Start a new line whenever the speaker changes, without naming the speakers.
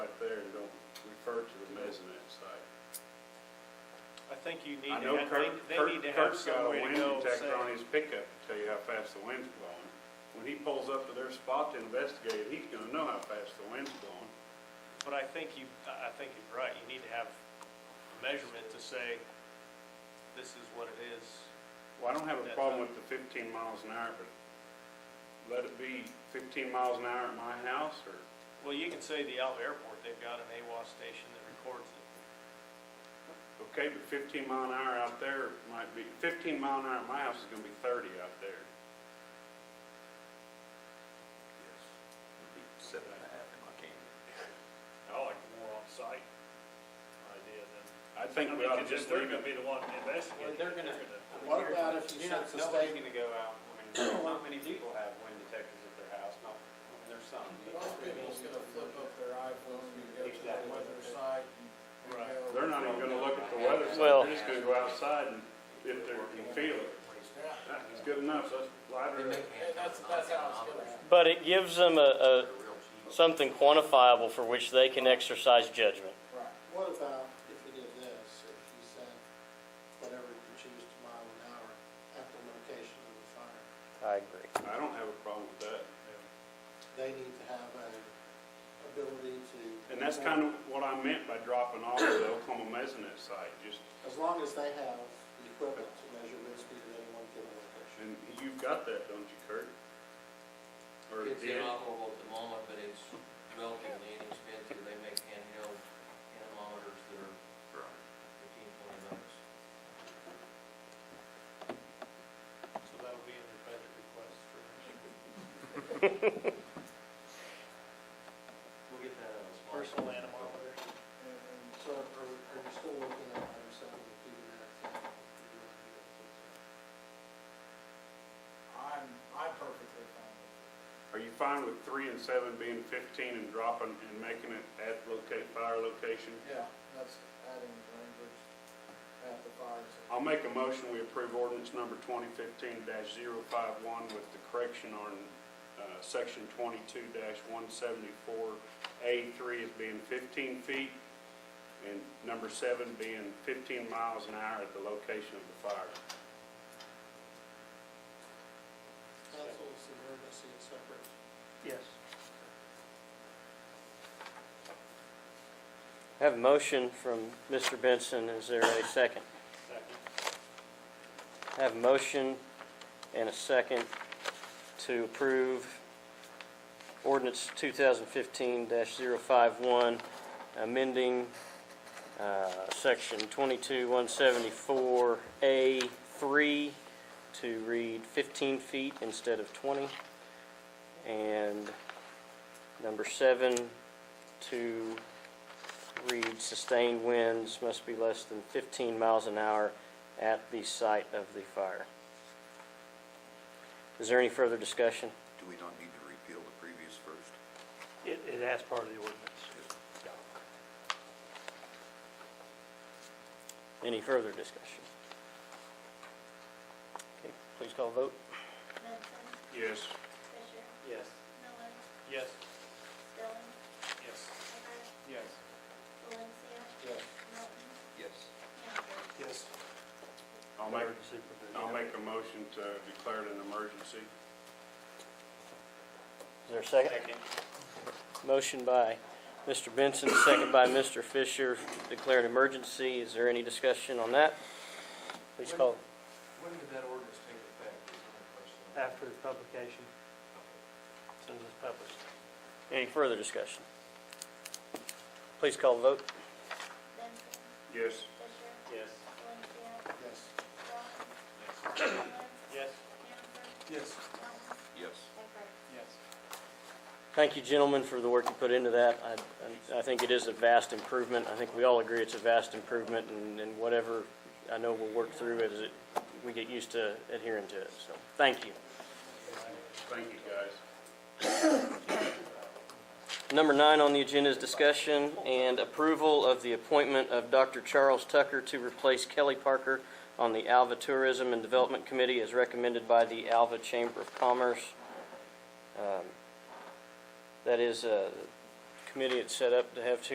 Kurt to the mezzanine site.
I think you need
I
to,
know
have-
Kurt,
they, they
Kurt,
need to have
Kurt's got a
somewhere to
wind
go.
detector
say-
on his pickup to tell you how fast the wind's blowing. When he pulls up to their spot to investigate, he's gonna know how fast the wind's blowing.
But I think you, I I think you're right, you need to have a measurement to say, this is what it is.
Well, I don't have a
That's
problem
right.
with the fifteen miles an hour, but let it be fifteen miles an hour at my house, or,
Well, you can say the Alva Airport, they've got an AWAS station that records it.
okay, but fifteen mile an hour out there might be, fifteen mile an hour at my house is gonna be thirty out there.
Seven and a half to my canyon.
I like the more on-site idea than.
I think
mean,
we ought to
'cause
just
if They're
leave
gonna
it,
be the one to investigate.
They're gonna-
gonna-
What about if you
You're not-
set the
Nobody's
state-
gonna go out, I mean, not many people have wind detectors at their house, not, I mean, there's some. you
Most
know,
people's gonna flip up their iPhone and go to the
Exactly.
weather site. and
Right.
go-
they're not even gonna look at the weather, so
Well-
they're just gonna go outside and if they can feel it.
Yeah.
That is good enough, so that's lighter.
And that's, that's how it's gonna happen.
But it gives them a, a, something quantifiable for which they can exercise judgment.
Right. What about if you did this, if you said, whatever you choose to mile an hour at the location of the fire,
I agree.
I don't have a problem with that.
they need to have a ability to.
And that's kind of what I meant by dropping off the Oklahoma Mesonet site, just,
As long as they have the equipment to measure wind speed at any one given location.
and you've got that, don't you, Kurt? Or
It's
did?
inoperable at the moment, but it's relatively inexpensive. They make handheld anemometers that are fifteen, twenty bucks.
So that'll be in your budget request for next year.
We'll get that out of the smart.
Personal anemometer.
And and so are, are you still looking at item seven, keeping that? I'm, I'm perfectly fine with it.
Are you fine with three and seven being fifteen and dropping and making it at locate, fire location?
Yeah, that's adding language at the fire.
I'll make a motion, we approve ordinance number twenty fifteen 51 with the correction on, uh, section twenty-two one seventy-four A three as being fifteen feet, and number seven being fifteen miles an hour at the location of the fire.
Council's emergency and separate.
Yes.
I have a motion from Mr. Benson. Is there a
Second.
second? I have a motion and a second to approve ordinance 2015-051, amending uh, section 22-174A3 to read 15 feet instead of 20, and number seven to read sustained winds must be less than 15 miles an hour at the site of the fire. Is there any further discussion?
Do we not need to repeal the previous first?
It, it has part of the ordinance.
Any further discussion? Okay, please call vote.
Benson,
Yes.
Fisher,
Yes.
Miller,
Yes.
Stelling,
Yes.
Eggers,
Yes.
Valencia,
Yes.
Milton,
Yes.
Hannaford.
Yes.
I'll make,
Emergency provision.
I'll make a motion to declare it an emergency.
Is there a second? Motion by Mr. Benson, second by Mr. Fisher, declared emergency. Is there any discussion on that? Please call.
When did that ordinance take effect is my question.
After the publication, soon as it's published.
Any further discussion? Please call the vote.
Benson,
Yes.
Fisher,
Yes.
Valencia,
Yes.
Stelling, Miller,
Yes.
Hannaford,
Yes.
Yes.
Milton, Eggers.
Yes.
Thank you, gentlemen, for the work you put into that. I- I I think it is a vast improvement. I think we all agree it's a vast improvement, and and whatever, I know we'll work through it as it- we get used to adhering to it. So, thank you.
Thank you, guys.
Number nine on the agenda is discussion and approval of the appointment of Dr. Charles Tucker to replace Kelly Parker on the Alva Tourism and Development Committee as recommended by the Alva Chamber of Commerce. Um, That is a committee that's set up to have two